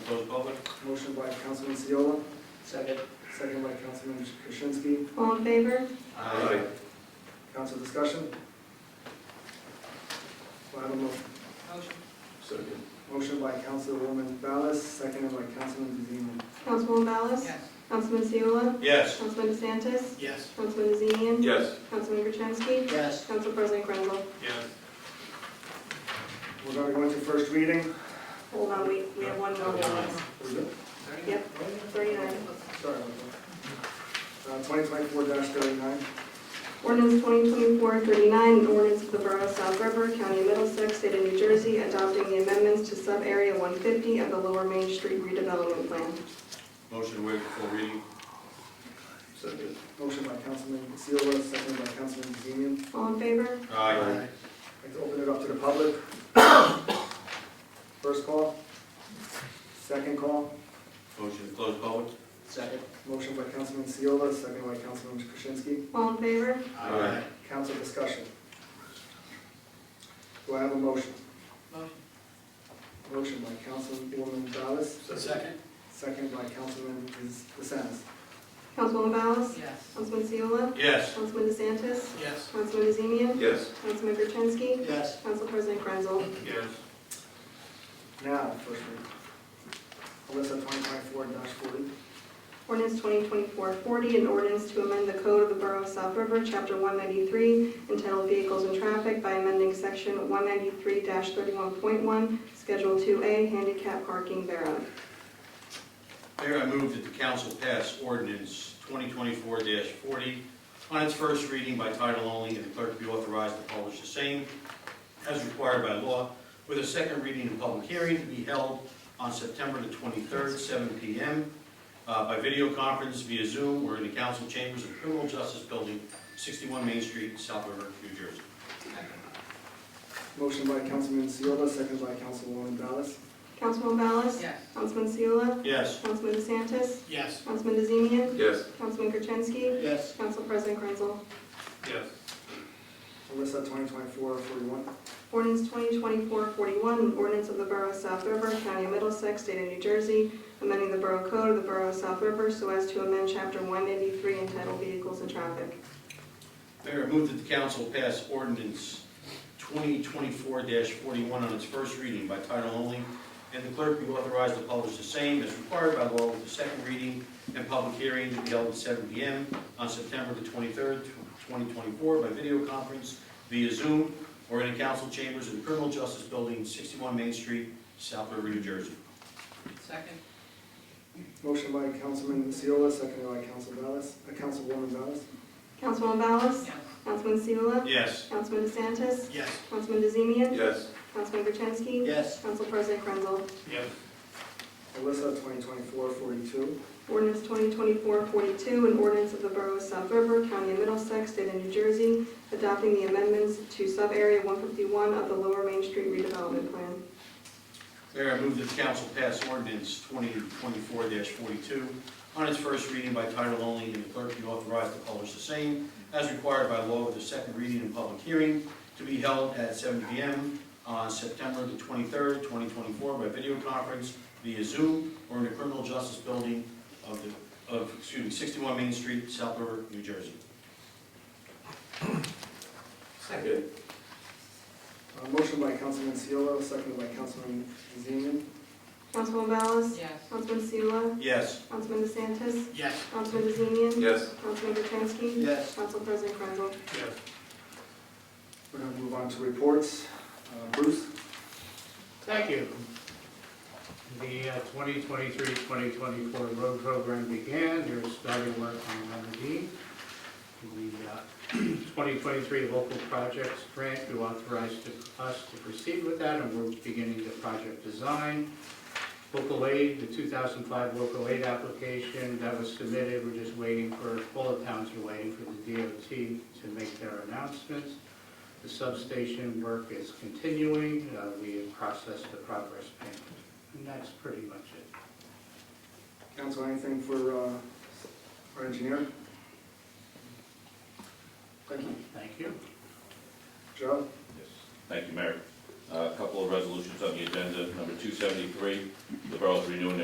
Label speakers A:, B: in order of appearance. A: by Councilman Seola,
B: Second.
A: second by Councilman Krasinski.
C: All in favor?
B: Aye.
A: Council discussion? Do I have a mo-
D: Motion.
B: Second.
A: motion by Councilwoman Ballas, seconded by Councilman DeZemian.
C: Councilwoman Ballas?
D: Yes.
C: Councilman Seola?
B: Yes.
C: Councilman DeSantis?
B: Yes.
C: Councilman DeZemian?
B: Yes.
C: Councilman Gertenski?
B: Yes.
C: Council President Grenville?
B: Yes.
A: We're going to go into first reading.
C: Hold on, we, we have one more.
A: We're good?
C: Yep, thirty-nine.
A: Sorry. about that. Uh, twenty twenty-four thirty-nine.
C: Ordinance 2024-39, an ordinance of the Borough of South River, County of Middlesex, State of New Jersey, adopting the amendments to sub-area 150 of the Lower Main Street redevelopment plan.
B: Motion to waive the full reading. Second.
A: Motion by Councilman Seola, seconded by Councilman DeZemian.
C: All in favor?
B: Aye.
A: I'd like to open it up to the public. First call, second call,
B: Motion to close public.
D: Second.
A: motion by Councilman Seola, second by Councilman Krasinski.
C: All in favor?
B: Aye.
A: Council discussion. Do I have a motion?
D: Motion.
A: Motion by Councilwoman Ballas,
B: Second.
A: second by Councilman DeSantis.
C: Councilwoman Ballas?
D: Yes.
C: Councilman Seola?
B: Yes.
C: Councilman DeSantis?
D: Yes.
C: Councilman DeZemian?
B: Yes.
C: Councilman Gertenski?
D: Yes.
C: Council President Krenzel?
B: Yes.
A: Now, first reading. Alyssa, twenty twenty-four forty.
C: Ordinance 2024-40, an ordinance to amend the code of the Borough of South River, Chapter 193, entitled Vehicles and Traffic by amending Section 193-31.1, Schedule 2A, handicap parking thereof.
E: Mayor, I move that the council pass ordinance 2024-40 on its first reading by title only and the clerk be authorized to publish the same as required by law, with a second reading and public hearing to be held on September the 23rd, 7 p.m. uh, by video conference via Zoom or in the council chambers of Criminal Justice Building, 61 Main Street, South River, New Jersey.
A: Motion by Councilman Seola, second by Councilwoman Ballas.
C: Councilwoman Ballas?
D: Yes.
C: Councilman Seola?
E: Yes.
C: Councilman DeSantis?
B: Yes.
C: Councilman DeZemian?
B: Yes.
C: Councilman Gertenski?
B: Yes.
C: Council President Krenzel?
B: Yes.
A: Alyssa, twenty twenty-four forty-one.
C: Ordinance 2024-41, an ordinance of the Borough of South River, County of Middlesex, State of New Jersey, amending the Borough Code of the Borough of South River so as to amend Chapter 183 entitled Vehicles and Traffic.
E: Mayor, I move that the council pass ordinance 2024-41 on its first reading by title only, and the clerk be authorized to publish the same as required by law with the second reading and public hearing to be held at 7 p.m. on September the 23rd, 2024, by video conference via Zoom or in the council chambers in the Criminal Justice Building, 61 Main Street, South River, New Jersey.
D: Second.
A: Motion by Councilman Seola, seconded by Council Ballas, uh, Councilwoman Ballas.
C: Councilwoman Ballas?
D: Yes.
C: Councilman Seula?
E: Yes.
C: Councilman DeSantis?
B: Yes.
C: Councilman DeZemian?
B: Yes.
C: Councilman Gertenski?
B: Yes.
C: Council President Krenzel?
B: Yes.
A: Alyssa, 2024-42.
C: Ordinance 2024-42, an ordinance of the Borough of South River, County of Middlesex, State of New Jersey, adopting the amendments to Subarea 151 of the Lower Main Street redevelopment plan.
E: Mayor, I move that the council pass ordinance 2024-42 on its first reading by title only, and the clerk be authorized to publish the same as required by law with the second reading and public hearing to be held at 7 p.m. on September the 23rd, 2024, by video conference via Zoom or in the Criminal Justice Building of, the of, excuse me, 61 Main Street, South River, New Jersey.
D: Second.
A: Uh, Motion by Councilman Seola, seconded by Councilman Zeman.
C: Councilwoman Ballas?
D: Yes.
C: Councilman Seula?
E: Yes.
C: Councilman DeSantis?
B: Yes.
C: Councilman DeZemian?
B: Yes.
C: Councilman Gertenski?
B: Yes.
C: Council President Krenzel?
B: Yes.
A: We're going to move on to reports. Uh, Bruce?
F: Thank you. The uh, 2023-2024 road program began, they're starting work on Lemon Dean. The uh, 2023 local projects grant, you authorized to- us to proceed with that, and we're beginning the project design. Local aid, the 2005 local aid application that was submitted, we're just waiting for, all the towns are waiting for the DOT to make their announcements. The substation work is continuing, Uh, we have processed the progress payment, and that's pretty much it.
A: Council, anything for uh, our engineer? Thank you.
F: Thank you.
A: Joe?
G: Yes. Thank you, Mayor. Uh, A couple of resolutions on the agenda. Number 273, the borough's renewing their